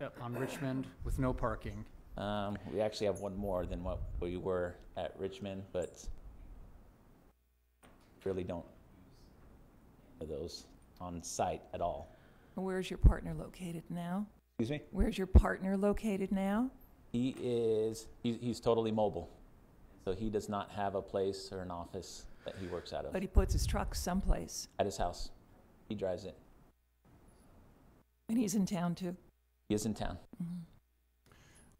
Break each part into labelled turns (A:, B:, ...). A: Yep, on Richmond with no parking.
B: Um, we actually have one more than what we were at Richmond, but really don't have those on site at all.
C: Where's your partner located now?
B: Excuse me?
C: Where's your partner located now?
B: He is, he's, he's totally mobile. So he does not have a place or an office that he works out of,
C: But he puts his truck someplace,
B: at his house. He drives it.
C: and he's in town too.
B: He is in town.
C: Mhm.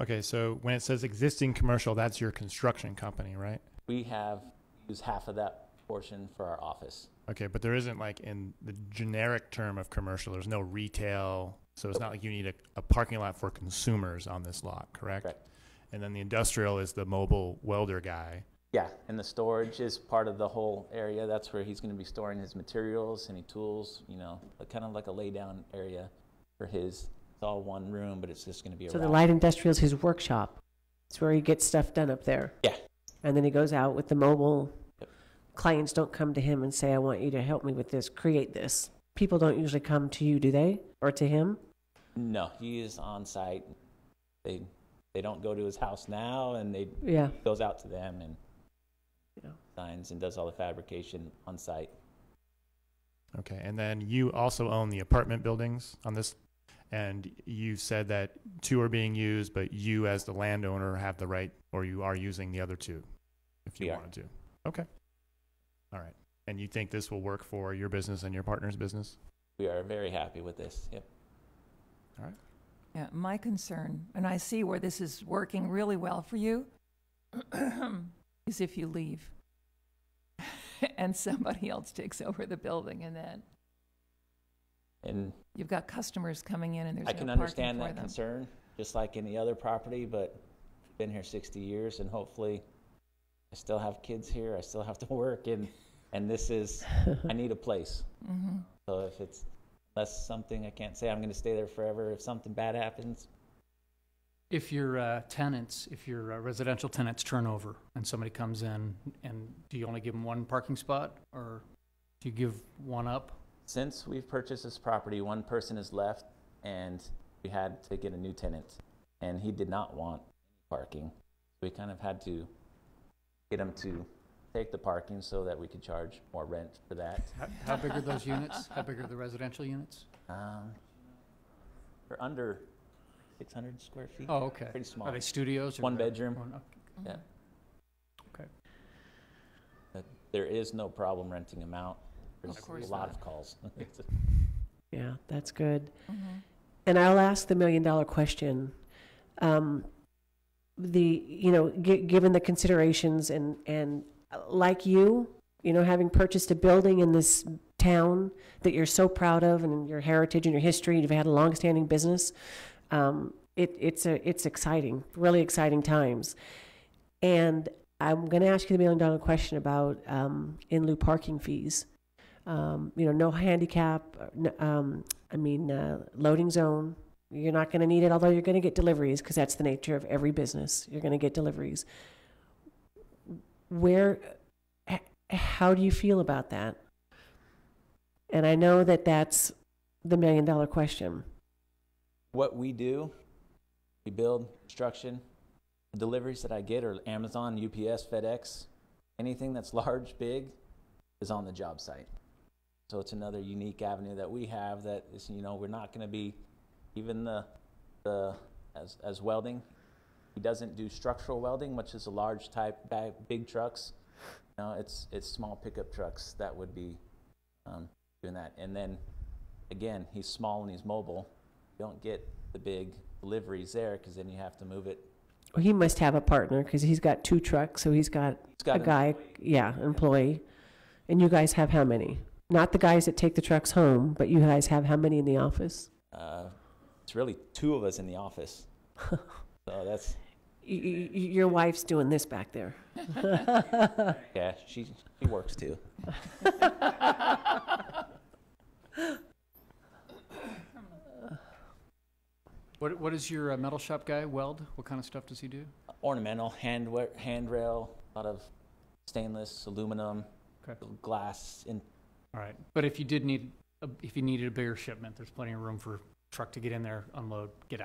D: Okay, so when it says existing commercial, that's your construction company, right?
B: We have used half of that portion for our office.
D: Okay, but there isn't like in the generic term of commercial, there's no retail. So it's not like you need a, a parking lot for consumers on this lot, correct?
B: Correct.
D: And then the industrial is the mobile welder guy.
B: Yeah, and the storage is part of the whole area. That's where he's going to be storing his materials, any tools, you know, kind of like a lay down area for his. It's all one room, but it's just going to be a
E: So the
B: rack.
E: light industrial's his workshop. It's where he gets stuff done up there.
B: Yeah.
E: And then he goes out with the mobile.
B: Yep.
E: Clients don't come to him and say, I want you to help me with this, create this. People don't usually come to you, do they? Or to him?
B: No, he is on site. They they don't go to his house now, and they
E: Yeah.
B: goes out to them and
E: Yeah.
B: signs and does all the fabrication on site.
D: Okay, and then you also own the apartment buildings on this. And you said that two are being used, but you as the landowner have the right, or you are using the other two if you
B: We are.
D: wanted to. Okay. All right. And you think this will work for your business and your partner's business?
B: We are very happy with this. Yep.
C: Yeah, my concern, and I see where this is working really well for you, is if you leave and somebody else takes over the building, and then
B: And
C: you've got customers coming in, and there's
B: I
C: no
B: can
C: parking
B: understand
C: for
B: that
C: them.
B: concern, just like any other property, but been here sixty years and hopefully I still have kids here, I still have to work and, and this is, I need a place.
C: Mhm.
B: So if it's, that's something I can't say I'm gonna stay there forever. If something bad happens,
A: If your uh, tenants, if your uh, residential tenants turn over and somebody comes in, and do you only give them one parking spot, or do you give one up?
B: since we've purchased this property, one person has left and we had to get a new tenant and he did not want parking. We kind of had to get him to take the parking so that we could charge more rent for that.
A: How, how big are those units? How big are the residential units?
B: Um, they're under 600 square feet.
A: Oh, okay.
B: Pretty small.
A: Are they studios? or
B: One
A: they're-
B: bedroom.
A: one- okay.
B: Yeah.
C: Mm-hmm.
A: Okay.
B: But There is no problem renting them out. There's
C: course
B: a lot
A: not.
B: of calls.
E: Yeah, that's good.
C: Mhm.
E: And I'll ask the million dollar question. Um, the, you know, g- given the considerations and, and uh, like you, you know, having purchased a building in this town that you're so proud of and your heritage and your history, you've had a longstanding business. Um, it, it's a, it's exciting, really exciting times. And I'm going to ask you the million dollar question about, um, in lieu parking fees. Um, you know, no handicap, uh, n- um, I mean, uh, loading zone. You're not going to need it, although you're going to get deliveries because that's the nature of every business. You're going to get deliveries. Where, h- how do you feel about that? And I know that that's the million dollar question.
B: what we do, we build construction. Deliveries that I get are Amazon, UPS, FedEx. Anything that's large, big is on the job site. So it's another unique avenue that we have that is, you know, we're not going to be even the, the as, as welding. He doesn't do structural welding, which is a large type, bag, big trucks. No, it's, it's small pickup trucks that would be um, doing that. And then again, he's small and he's mobile you don't get the big deliveries there because then you have to move it.
E: He must have a partner because he's got two trucks, so he's got
B: It's
E: a
B: got an-
E: guy, yeah, employee. And you guys have how many? Not the guys that take the trucks home, but you guys have how many in the office?
B: uh, it's really two of us in the office. so that's
E: Y- y- y- your wife's doing this back there.
B: yeah. She she works too.
A: What, what is your uh, metal shop guy weld? What kind of stuff does he do?
B: Ornamental hand handrail, a lot of stainless, aluminum,
A: Okay.
B: glass. In
A: All right, but if you did need, a- if you needed a bigger shipment, there's plenty of room for truck to get in there, unload, get out.